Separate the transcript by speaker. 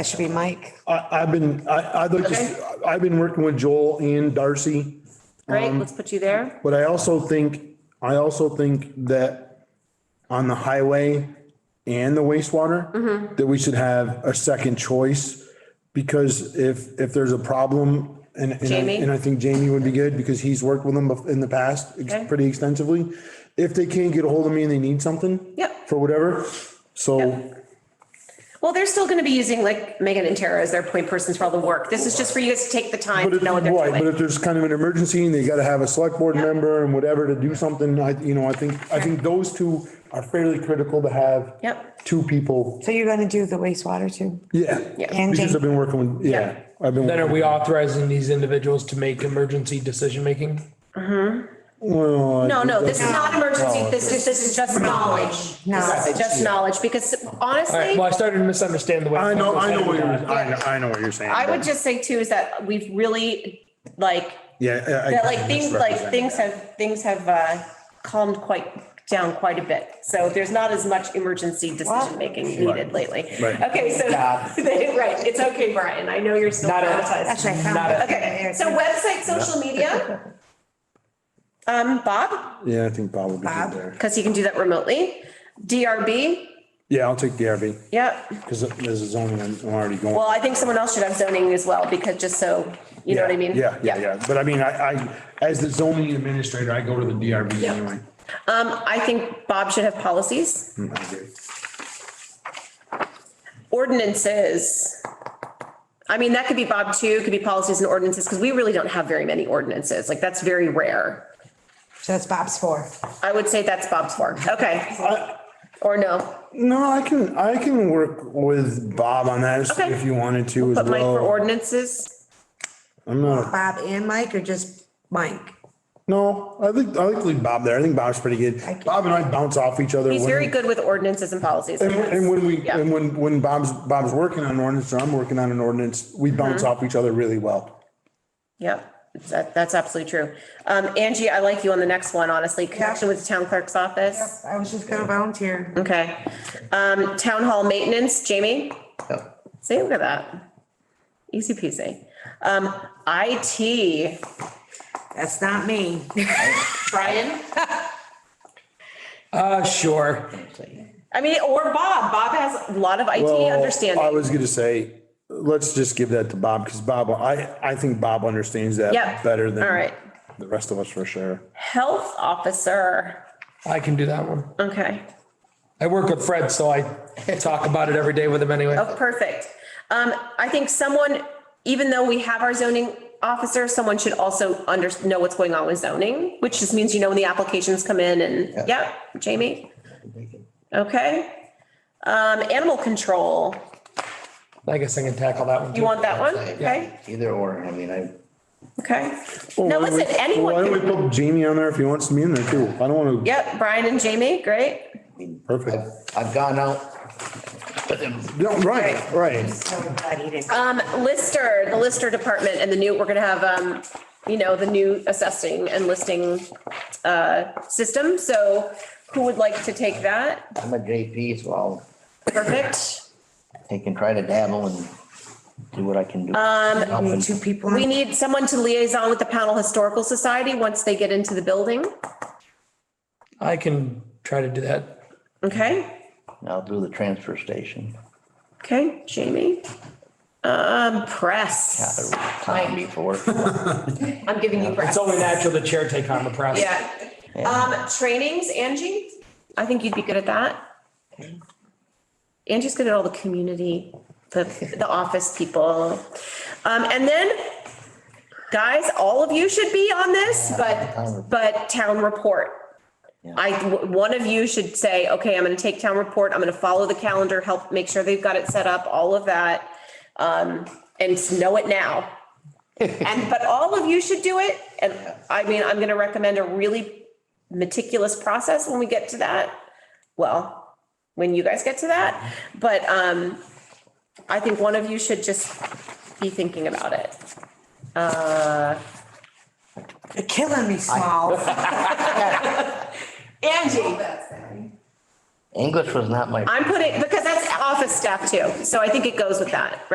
Speaker 1: That should be Mike.
Speaker 2: I, I've been, I, I'd like to, I've been working with Joel and Darcy,
Speaker 3: Um,
Speaker 4: Great, let's put you there.
Speaker 2: but I also think, I also think that on the highway and the
Speaker 4: Mm-hmm.
Speaker 2: wastewater, that we should have a second choice. Because if, if there's a problem and, and I-
Speaker 4: Jamie?
Speaker 2: and I think Jamie would be good because he's worked with them bef- in the past ex-
Speaker 4: Okay.
Speaker 2: pretty extensively. If they can't get a hold of me and they need something.
Speaker 4: Yep.
Speaker 2: For whatever, so
Speaker 4: Well, they're still gonna be using like Megan and Tara as their point persons for all the work. This is just for you guys to take the time
Speaker 2: But
Speaker 4: to
Speaker 2: if,
Speaker 4: know what they're
Speaker 2: right, but
Speaker 4: doing.
Speaker 2: if there's kind of an emergency and they gotta have a select board
Speaker 4: Yeah.
Speaker 2: member and whatever to do something, I, you know, I think, I think those two are fairly critical to have.
Speaker 4: Yep.
Speaker 2: Two people,
Speaker 1: So you're gonna do the wastewater too?
Speaker 2: yeah.
Speaker 1: And
Speaker 2: Because
Speaker 1: Jamie.
Speaker 2: I've been working with,
Speaker 4: Yeah.
Speaker 2: yeah, I've been,
Speaker 3: Then are
Speaker 2: working-
Speaker 3: we authorizing these individuals to make emergency decision making?
Speaker 2: well. I
Speaker 4: No,
Speaker 2: think
Speaker 4: no,
Speaker 2: that's-
Speaker 4: this is not emergency. This is, this is just knowledge. This is just knowledge because
Speaker 3: All right,
Speaker 4: honestly,
Speaker 3: well, I started to misunderstand the way.
Speaker 2: I know, I know what you're,
Speaker 3: Yeah.
Speaker 2: I know, I know what you're saying.
Speaker 4: I would just say too, is that we've really like,
Speaker 2: Yeah. I- I-
Speaker 4: that like things, like
Speaker 2: misrepresented.
Speaker 4: things have, things have uh, calmed quite down quite a bit. So there's not as much emergency decision making needed lately.
Speaker 2: Right.
Speaker 4: Okay, so, right, it's okay, Brian. I know you're still
Speaker 3: Not a-
Speaker 4: traumatized.
Speaker 1: That's what I found.
Speaker 3: Not a-
Speaker 4: Okay, so website, social media. Um, Bob,
Speaker 2: Yeah, I think Bob would be
Speaker 1: Bob?
Speaker 2: good there.
Speaker 4: because he can do that remotely. DRB,
Speaker 2: Yeah, I'll take DRB,
Speaker 4: yep.
Speaker 2: because there's a zoning, I'm I'm already going.
Speaker 4: Well, I think someone else should have zoning as well, because just so, you know what I mean?
Speaker 2: Yeah, yeah, yeah, but I mean, I, I, as the zoning administrator, I go to the DRB
Speaker 4: Yeah.
Speaker 2: anyway.
Speaker 4: Um, I think Bob should have policies,
Speaker 2: Mm, I agree.
Speaker 4: ordinances. I mean, that could be Bob too, It could be policies and ordinances, because we really don't have very many ordinances. Like, that's very rare.
Speaker 1: So that's Bob's four.
Speaker 4: I would say that's Bob's work. Okay. Or no,
Speaker 2: No, I can, I can work with Bob on that
Speaker 4: Okay.
Speaker 2: if you wanted to as
Speaker 4: put Mike for
Speaker 2: well.
Speaker 4: ordinances.
Speaker 2: I'm not,
Speaker 1: Bob and Mike or just Mike?
Speaker 2: no, I think, I think leave Bob there. I think Bob's pretty good.
Speaker 1: Thank you.
Speaker 2: Bob and I bounce off each other.
Speaker 4: He's
Speaker 2: when-
Speaker 4: very good with ordinances and policies.
Speaker 2: And, and when we,
Speaker 4: Yeah.
Speaker 2: and when, when Bob's, Bob's working on an ordinance or I'm working on an ordinance,
Speaker 4: Mm-hmm.
Speaker 2: we bounce off each other really well.
Speaker 4: Yep, that, that's absolutely true. Um, Angie, I like you on the next one, honestly, connection with the town clerk's office.
Speaker 1: I was just gonna volunteer.
Speaker 4: Okay. Um, town hall maintenance, Jamie? See, look at that. Easy peasy. Um, IT,
Speaker 1: That's not me.
Speaker 4: Brian?
Speaker 3: Uh, sure.
Speaker 4: I mean, or Bob. Bob has a lot of IT
Speaker 2: Well, I
Speaker 4: understanding.
Speaker 2: was gonna say, let's just give that to Bob because Bob, I, I think Bob understands
Speaker 4: Yep.
Speaker 2: that better than
Speaker 4: All right.
Speaker 2: the rest of us for sure.
Speaker 4: Health officer,
Speaker 3: I can do that one.
Speaker 4: okay.
Speaker 3: I work with Fred, so I talk about it every day with him anyway.
Speaker 4: Oh, perfect. Um, I think someone, even though we have our zoning officer, someone should also under, know what's going on with zoning, which just means, you know, when the applications come in and, yeah, Jamie? Okay. Um, animal control,
Speaker 3: I guess I can tackle that one
Speaker 4: you
Speaker 3: too.
Speaker 4: want that one? Okay,
Speaker 5: Either or, I mean, I,
Speaker 4: okay.
Speaker 2: Well,
Speaker 4: Now,
Speaker 2: why don't
Speaker 4: listen,
Speaker 2: we-
Speaker 4: anyone
Speaker 2: Why don't we
Speaker 4: could,
Speaker 2: put Jamie on there if he wants to be in there too? I don't want to,
Speaker 4: yep, Brian and Jamie, great.
Speaker 5: I mean,
Speaker 2: perfect.
Speaker 5: I've, I've gone out.
Speaker 2: No, right, right.
Speaker 1: So glad he didn't.
Speaker 4: Um, Lister, the Lister department and the new, we're gonna have, um, you know, the new assessing and listing, uh, system. So who would like to take that?
Speaker 5: I'm a JP, so I'll
Speaker 4: Perfect.
Speaker 5: take and try to dabble and do what I can do.
Speaker 1: Only
Speaker 5: Um.
Speaker 1: Two people.
Speaker 4: We need someone to liaison with the Pownell Historical Society once they get into the building.
Speaker 3: I can try to do that.
Speaker 4: Okay,
Speaker 5: I'll do the transfer station.
Speaker 4: okay, Jamie. Um, press.
Speaker 5: Time before.
Speaker 4: I'm giving you press.
Speaker 3: It's only natural the chair take on the press.
Speaker 4: Yeah. Um, trainings, Angie, I think you'd be good at that. Angie's good at all the community, the, the office people. Um, and then, guys, all of you should be on this, but, but town report. I, one of you should say, okay, I'm gonna take town report, I'm gonna follow the calendar, help, make sure they've got it set up, all of that. Um, and know it now. And, but all of you should do it. And I mean, I'm gonna recommend a really meticulous process when we get to that. Well, when you guys get to that, but, um, I think one of you should just be thinking about it.
Speaker 1: You're killing me, small.
Speaker 4: Angie.
Speaker 5: English was not my
Speaker 4: I'm putting, because that's office staff too, so I think it goes with that,